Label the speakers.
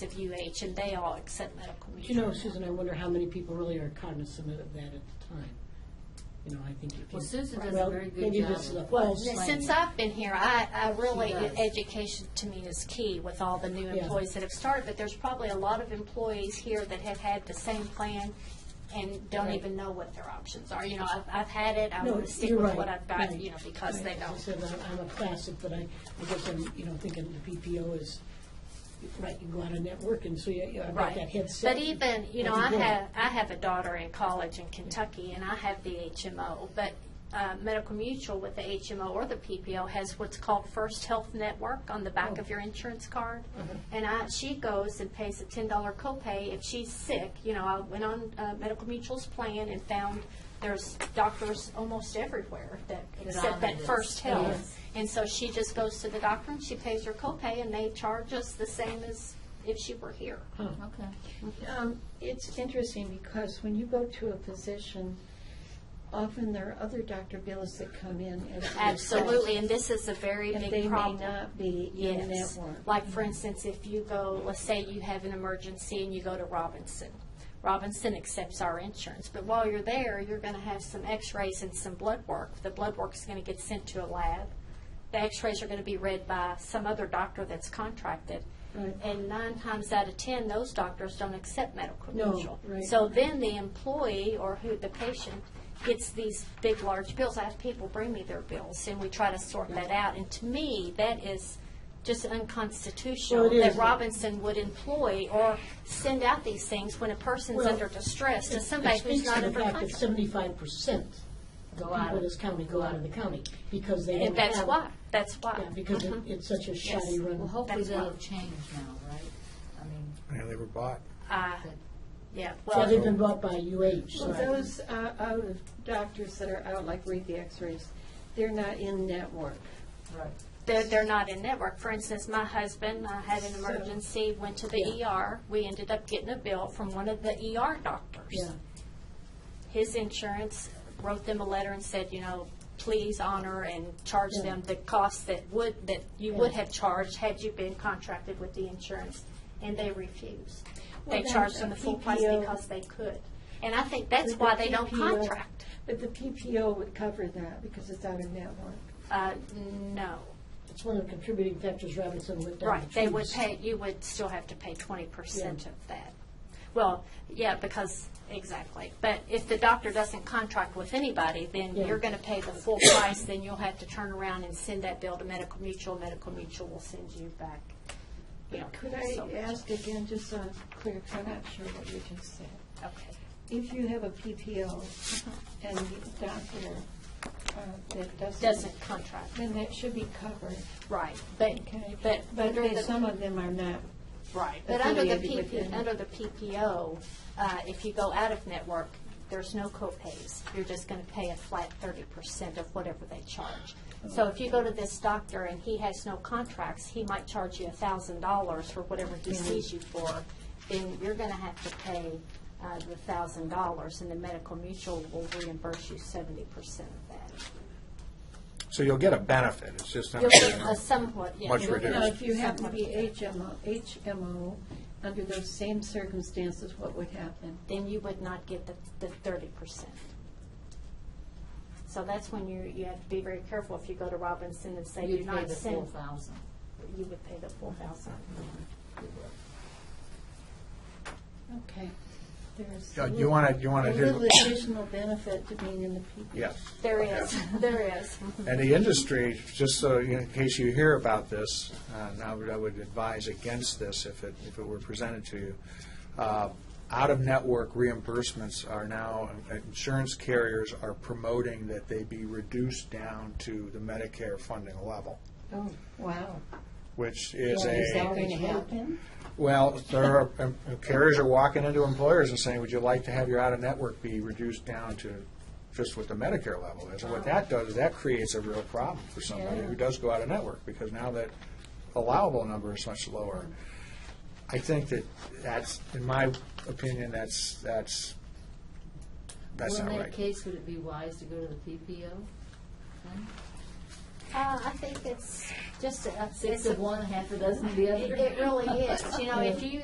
Speaker 1: of UH, and they all accept medical
Speaker 2: But
Speaker 1: mutual.
Speaker 2: You know,
Speaker 1: now.
Speaker 2: Susan, I wonder how many people really are cognizant of that at the time. You know, I think if you.
Speaker 3: Well, Susan does a
Speaker 2: Well,
Speaker 3: very good
Speaker 2: maybe
Speaker 3: job
Speaker 2: this is a
Speaker 3: of
Speaker 1: Well,
Speaker 2: false-
Speaker 3: explaining.
Speaker 1: since I've been here, I, I really,
Speaker 3: She does.
Speaker 1: education to me is key with all the new
Speaker 2: Yeah.
Speaker 1: employees that have started, but there's probably a lot of employees here that have had the same plan and don't
Speaker 2: Right.
Speaker 1: even know what their options are. You know, I've, I've had it, I
Speaker 2: No,
Speaker 1: want to stick
Speaker 2: you're
Speaker 1: with
Speaker 2: right,
Speaker 1: what I've got,
Speaker 2: right,
Speaker 1: you know, because they
Speaker 2: right. I
Speaker 1: don't.
Speaker 2: said, I'm- I'm a classic, but I, I guess I'm, you know, thinking the PPO is, right, you go out and network and so you, you have
Speaker 1: Right.
Speaker 2: that headset.
Speaker 1: But even, you know, I
Speaker 2: That's important.
Speaker 1: have, I have a daughter in college in Kentucky, and I have the HMO, but uh, Medical Mutual with the HMO or the PPO has what's called First Health Network on the back of your insurance card. And I, she goes and pays a ten dollar copay if she's sick. You know, I went on uh, Medical Mutual's plan and found there's doctors almost everywhere that accept that
Speaker 3: Dominant.
Speaker 1: First Health.
Speaker 3: Yes.
Speaker 1: And so she just goes to the doctor and she pays her copay, and they charge us the same as if she were here.
Speaker 3: Okay.
Speaker 4: Um, It's interesting because when you go to a physician, often there are other Dr. Billis that come in. as the
Speaker 1: Absolutely, and this is a very
Speaker 4: request, And
Speaker 1: big
Speaker 4: they may
Speaker 1: problem.
Speaker 4: not be in
Speaker 1: Yes.
Speaker 4: network.
Speaker 1: Like, for instance, if you go, let's say you have an emergency and you go to Robinson. Robinson accepts our insurance, but while you're there, you're going to have some x-rays and some blood work. The blood work is going to get sent to a lab. The x-rays are going to be read by some other doctor that's contracted.
Speaker 4: Right.
Speaker 1: And nine times out of 10, those doctors don't accept medical
Speaker 2: No,
Speaker 1: mutual.
Speaker 2: right.
Speaker 1: So then the employee or who, the patient, gets these big, large bills. I have people bring me their bills, and we try to sort that out. And to me, that is just unconstitutional
Speaker 2: Well, it
Speaker 1: that
Speaker 2: is.
Speaker 1: Robinson would employ or send out these things when a person's
Speaker 2: Well,
Speaker 1: under distress to
Speaker 2: It-
Speaker 1: somebody who's not
Speaker 2: It speaks to
Speaker 1: under
Speaker 2: the fact that
Speaker 1: contract.
Speaker 2: seventy-five percent of
Speaker 3: Go out
Speaker 2: people in
Speaker 3: of-
Speaker 2: this county go out of the county because they
Speaker 1: And
Speaker 2: don't
Speaker 1: that's
Speaker 2: have-
Speaker 1: why, Mm-hmm. that's why.
Speaker 2: Yeah, because it- it's such a shoddy run.
Speaker 3: Well, hopefully
Speaker 1: That's why.
Speaker 3: that'll change now, right? I mean,
Speaker 5: Yeah, they were bought.
Speaker 1: Uh,
Speaker 3: that-
Speaker 1: Yeah,
Speaker 2: Yeah,
Speaker 1: well,
Speaker 2: they've been bought by UH, so.
Speaker 4: Well, those uh, out of doctors that are out, like read the x-rays, they're not in network.
Speaker 3: right.
Speaker 1: they're, they're not in network. For instance, my husband, I had an
Speaker 4: So-
Speaker 1: emergency, went to the
Speaker 2: Yeah.
Speaker 1: ER. We ended up getting a bill from one of the ER
Speaker 2: Yeah,
Speaker 1: doctors. his insurance wrote them a letter and said, you know, please honor and charge
Speaker 2: Yeah.
Speaker 1: them the cost that would, that you would
Speaker 2: Yeah.
Speaker 1: have charged had you been contracted with the insurance, and they refused. They
Speaker 4: Well, then E
Speaker 1: charged
Speaker 4: the
Speaker 1: them the full price
Speaker 4: PPO
Speaker 1: because they could. And I think that's
Speaker 4: But
Speaker 1: why
Speaker 4: the E
Speaker 1: they don't
Speaker 4: PPO
Speaker 1: contract.
Speaker 4: But the PPO would cover that because it's out of network.
Speaker 1: Uh, no,
Speaker 2: it's one of the contributing factors Robinson went down.
Speaker 1: right,
Speaker 2: the
Speaker 1: they would
Speaker 2: tubes.
Speaker 1: pay, you would still have to pay twenty percent of that. Well, yeah, because, exactly. But if the doctor doesn't contract with anybody, then
Speaker 2: Yeah.
Speaker 1: you're going to pay the full price, then you'll have to turn around and send that bill to Medical Mutual. Medical Mutual will send you back. you know,
Speaker 4: Could
Speaker 1: so much.
Speaker 4: I ask again, just so I'm clear, 'cause I'm not sure what you just said.
Speaker 1: Okay.
Speaker 4: If you have a PPO
Speaker 1: Uh-huh.
Speaker 4: and the doctor uh, that doesn't.
Speaker 1: Doesn't contract,
Speaker 4: Then that should be covered,
Speaker 1: right. But,
Speaker 4: okay?
Speaker 1: but
Speaker 4: But
Speaker 1: under
Speaker 4: they-
Speaker 1: the
Speaker 4: some of them are not.
Speaker 1: Right, but under the
Speaker 4: affiliated with
Speaker 1: PP,
Speaker 4: them.
Speaker 1: under the PPO, uh, if you go out of network, there's no copays. You're just going to pay a flat thirty percent of whatever they charge. So if you go to this doctor and he has no contracts, he might charge you a thousand dollars for whatever he sees you for, then you're going to have to pay uh, the thousand dollars, and the medical mutual will reimburse you seventy percent of that.
Speaker 5: So you'll get a benefit, it's just not
Speaker 1: You'll
Speaker 5: gonna
Speaker 1: get
Speaker 5: be
Speaker 1: a somewhat, yeah.
Speaker 5: Much
Speaker 1: you'll get
Speaker 4: Now,
Speaker 5: reduced.
Speaker 4: if you happen to be
Speaker 1: somewhat.
Speaker 4: HMO, HMO, under those same circumstances, what would happen?
Speaker 1: then you would not get the, the thirty percent. So that's when you, you have to be very careful if you go to Robinson and say you're
Speaker 3: You'd pay
Speaker 1: not
Speaker 3: the full
Speaker 1: sent,
Speaker 3: thousand.
Speaker 1: you would pay the full thousand.
Speaker 4: Okay. There's
Speaker 5: Yeah,
Speaker 4: a
Speaker 5: you
Speaker 4: little-
Speaker 5: wanna- you wanna
Speaker 4: a
Speaker 5: do-
Speaker 4: little additional benefit to being in the PPO.
Speaker 5: Yes.
Speaker 1: There is, there is.
Speaker 5: And the industry, just so, you know, in case you hear about this, uh, and I would, I would advise against this if it, if it were presented to you. Uh, Out-of-network reimbursements are now, insurance carriers are promoting that they be reduced down to the Medicare funding level,
Speaker 4: Oh, wow.
Speaker 5: which is
Speaker 2: Yeah,
Speaker 5: a.
Speaker 2: is that
Speaker 4: Going
Speaker 2: Gonna
Speaker 4: to
Speaker 2: happen?
Speaker 4: happen?
Speaker 5: Well, there are, um, carriers are walking into employers and saying, would you like to have your out-of-network be reduced down to just what the Medicare level is? And what that does, is that creates a real problem for somebody who does go out-of-network, because now that allowable number is much lower. I think that that's, in my opinion, that's, that's, that's not
Speaker 3: Well, in that
Speaker 5: right.
Speaker 3: case, would it be wise to go to the PPO? then?
Speaker 1: Uh, I think it's just, a- it's
Speaker 3: Six of
Speaker 1: a,
Speaker 3: one, half a dozen of the other?
Speaker 1: it it really is, you know, if you